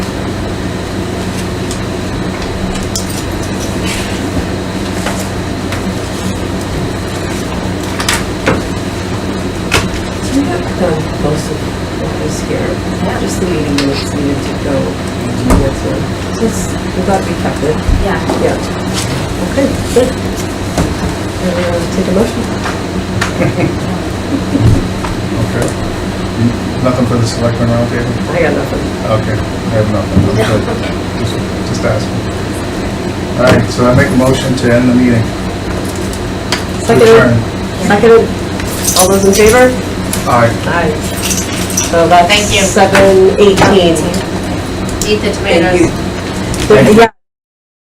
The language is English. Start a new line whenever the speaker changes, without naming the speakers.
this here, just the meeting minutes needed to go to the next one. So it's, I'm glad we kept it,
Yeah.
yeah. Okay, good. Uh, Take a motion.
Okay. Nothing for the selectmen roundtable?
I got nothing.
Okay, I have nothing. Good. Just just asking. All right, so I make a motion to end the meeting.
Seconded, seconded, all those in favor?
All right.
Aye. So that's
Thank you.
seven eighteen.
Eat the
Thank
tomatoes.
you. Yeah,